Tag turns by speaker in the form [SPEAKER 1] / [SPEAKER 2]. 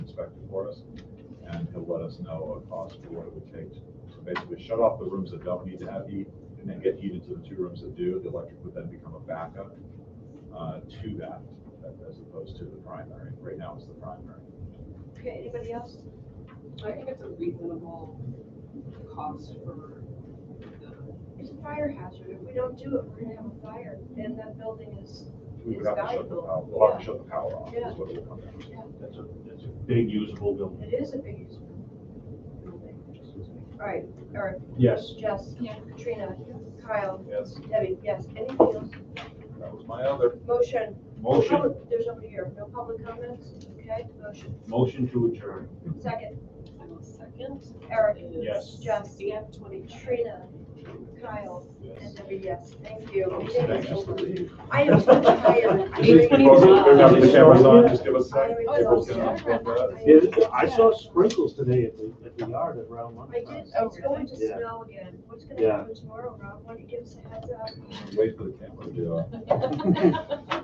[SPEAKER 1] inspector for us, and he'll let us know a cost for what it would take to basically shut off the rooms that don't need to have heat, and then get heat into the two rooms that do, the electric would then become a backup uh, to that, as opposed to the primary, right now it's the primary.
[SPEAKER 2] Okay, anybody else?
[SPEAKER 3] I think it's a reasonable cost for the,
[SPEAKER 2] It's a fire hazard. If we don't do it, we're gonna have a fire, and that building is,
[SPEAKER 1] We would
[SPEAKER 2] It's
[SPEAKER 1] have to shut the
[SPEAKER 2] valuable.
[SPEAKER 1] power, we'll have to shut the power off,
[SPEAKER 2] Yeah.
[SPEAKER 1] is what it will come down to.
[SPEAKER 4] That's a, that's a big usable building.
[SPEAKER 2] it is a big use building. All right, Eric,
[SPEAKER 4] Yes.
[SPEAKER 2] Jess,
[SPEAKER 3] Yeah.
[SPEAKER 2] Katrina, Kyle,
[SPEAKER 1] Yes,
[SPEAKER 2] Debbie, yes, anything else?
[SPEAKER 1] that was my other
[SPEAKER 2] Motion.
[SPEAKER 4] Motion,
[SPEAKER 2] Public- There's nobody here. No public comments? Okay, motion.
[SPEAKER 4] motion to adjourn.
[SPEAKER 2] Second,
[SPEAKER 3] I will second.
[SPEAKER 2] Eric,
[SPEAKER 3] is
[SPEAKER 4] Yes.
[SPEAKER 2] Jess,
[SPEAKER 3] CF twenty-three.
[SPEAKER 2] Katrina, Kyle, and Debbie, yes. Thank you. Meeting
[SPEAKER 1] Thanks,
[SPEAKER 2] is
[SPEAKER 1] just to
[SPEAKER 2] over.
[SPEAKER 1] leave.
[SPEAKER 2] I am so tired.
[SPEAKER 3] Just leave.
[SPEAKER 2] I am-
[SPEAKER 1] Now that the camera's on, just give us a second.
[SPEAKER 2] I
[SPEAKER 1] Give us
[SPEAKER 2] was
[SPEAKER 1] a second.
[SPEAKER 2] upset.
[SPEAKER 5] Yeah, I saw sprinkles today at the, at the yard at around
[SPEAKER 2] I did,
[SPEAKER 5] lunchtime.
[SPEAKER 2] it's going to
[SPEAKER 5] Yeah.
[SPEAKER 2] snow again. What's gonna
[SPEAKER 5] Yeah.
[SPEAKER 2] happen tomorrow, Rob? Why don't you give us a heads up?
[SPEAKER 1] Wait for the camera to, uh,